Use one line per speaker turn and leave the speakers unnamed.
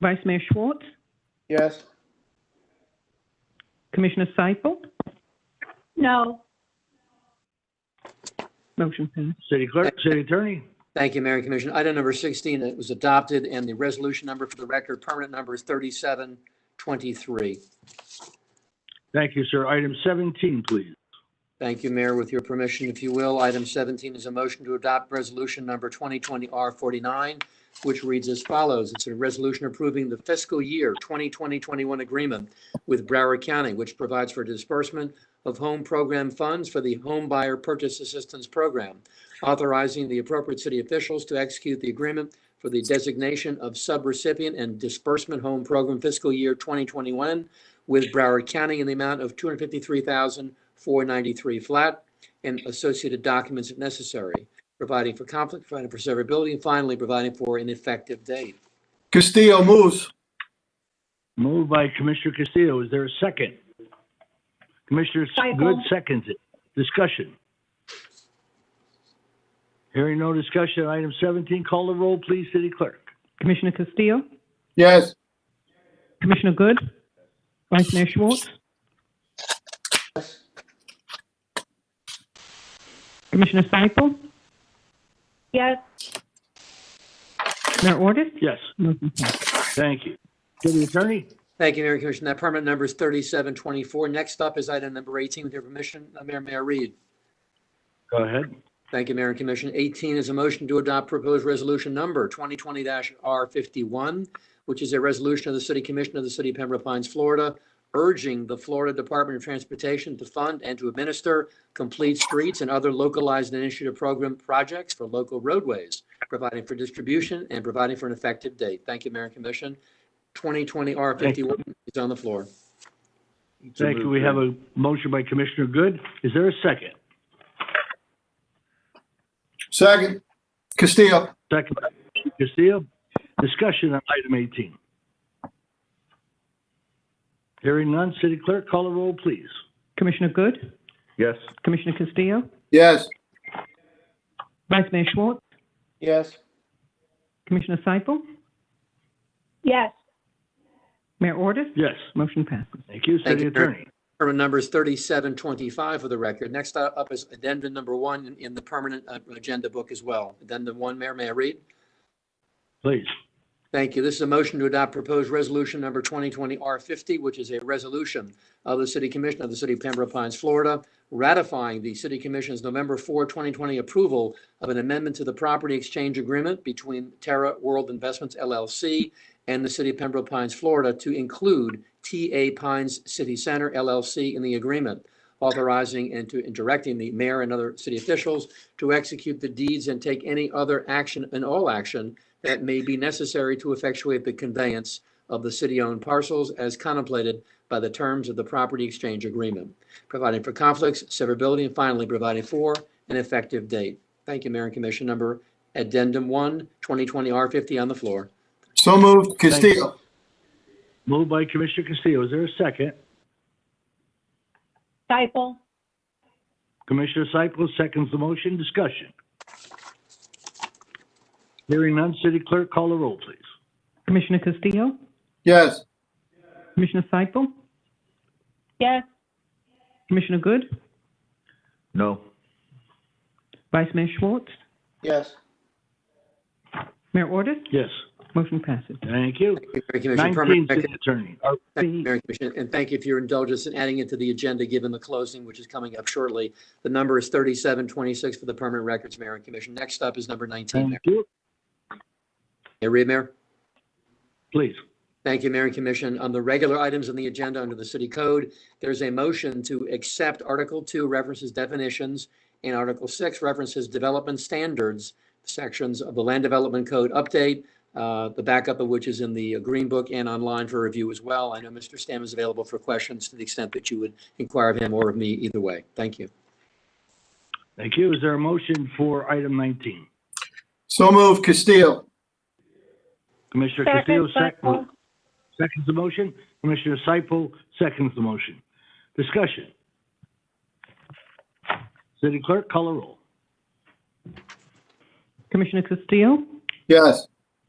Vice Mayor Schwartz,
Yes.
Commissioner Seifel,
No.
motion passed.
City Clerk, City Attorney?
Thank you, Mayor and Commission. Item number 16, it was adopted, and the resolution number for the record, permanent number is 3723.
Thank you, sir. Item 17, please.
Thank you, Mayor. With your permission, if you will, item 17 is a motion to adopt resolution number 2020-R49, which reads as follows. It's a resolution approving the fiscal year 2020-21 agreement with Broward County, which provides for disbursement of home program funds for the Home Buyer Purchase Assistance Program, authorizing the appropriate city officials to execute the agreement for the designation of subrecipient and disbursement home program fiscal year 2021 with Broward County in the amount of $253,493 flat and associated documents if necessary, providing for conflict, providing for severability, and finally, providing for an effective date.
Castillo moves.
Moved by Commissioner Castillo. Is there a second? Commissioner
Seifel.
Good seconds it. Discussion. Hearing no discussion, item 17, call the roll, please, City Clerk.
Commissioner Castillo,
Yes.
Commissioner Good, Vice Mayor Schwartz. Commissioner Seifel,
Yes.
Mayor Ordus,
Yes,
motion passed.
thank you. City Attorney?
Thank you, Mayor and Commissioner. That permanent number is 3724. Next up is item number 18. With your permission, uh, Mayor, Mayor Reed.
Go ahead.
Thank you, Mayor and Commission. 18 is a motion to adopt proposed resolution number 2020-R51, which is a resolution of the City Commission of the City of Pembroke Pines, Florida, urging the Florida Department of Transportation to fund and to administer complete streets and other localized initiative program projects for local roadways, providing for distribution and providing for an effective date. Thank you, Mayor and Commission. 2020-R51 is on the floor.
Thank you. We have a motion by Commissioner Good. Is there a second?
Second. Castillo.
Second by Commissioner Castillo. Discussion on item 18. Hearing none, City Clerk, call the roll, please.
Commissioner Good,
Yes.
Commissioner Castillo,
Yes.
Vice Mayor Schwartz,
Yes.
Commissioner Seifel,
Yes.
Mayor Ordus,
Yes.
motion passes.
Thank you,
Thank
City
you, Mayor.
Attorney.
Permanent number is 3725 for the record. Next up is addendum number one in- in the permanent uh, agenda book as well. Addendum one, Mayor, may I read?
Please.
Thank you. This is a motion to adopt proposed resolution number 2020-R50, which is a resolution of the City Commission of the City of Pembroke Pines, Florida, ratifying the City Commission's November 4, 2020 approval of an amendment to the property exchange agreement between Terra World Investments LLC and the City of Pembroke Pines, Florida, to include TA Pines City Center LLC in the agreement, authorizing and to- and directing the mayor and other city officials to execute the deeds and take any other action and all action that may be necessary to effectuate the conveyance of the city-owned parcels as contemplated by the terms of the property exchange agreement, providing for conflicts, severability, and finally providing for an effective date. Thank you, Mayor and Commission. Number Addendum 1, 2020-R50 on the floor.
So moved. Castillo.
Moved by Commissioner Castillo. Is there a second?
Stifle.
Commissioner Cyple seconds the motion. Discussion. Hearing none, City Clerk, call the roll, please.
Commissioner Castillo,
Yes.
Commissioner Seifel,
Yes.
Commissioner Good,
No.
Vice Mayor Schwartz,
Yes.
Mayor Ordus,
Yes,
motion passes.
thank you.
Mayor and Commission.
Nineteen,
Permanent
City
record-
Attorney. Are-
Thank you, Mayor and Commissioner, and thank you for your indulgence in adding it to the agenda, given the closing, which is coming up shortly. The number is 3726 for the permanent records, Mayor and Commission. Next up is number 19,
Thank
Mayor.
you.
May I read, Mayor?
Please.
Thank you, Mayor and Commission. On the regular items on the agenda under the city code, there's a motion to accept Article 2 references definitions and Article 6 references development standards sections of the Land Development Code update, uh, the backup of which is in the uh, Green Book and online for review as well. I know Mr. Stam is available for questions to the extent that you would inquire of him or of me either way. Thank you.
Thank you. Is there a motion for item 19?
So moved. Castillo.
Commissioner Castillo
Second.
sec- seconds the motion. Commissioner Cyple seconds the motion. Discussion. City Clerk, call the roll.
Commissioner Castillo,
Yes.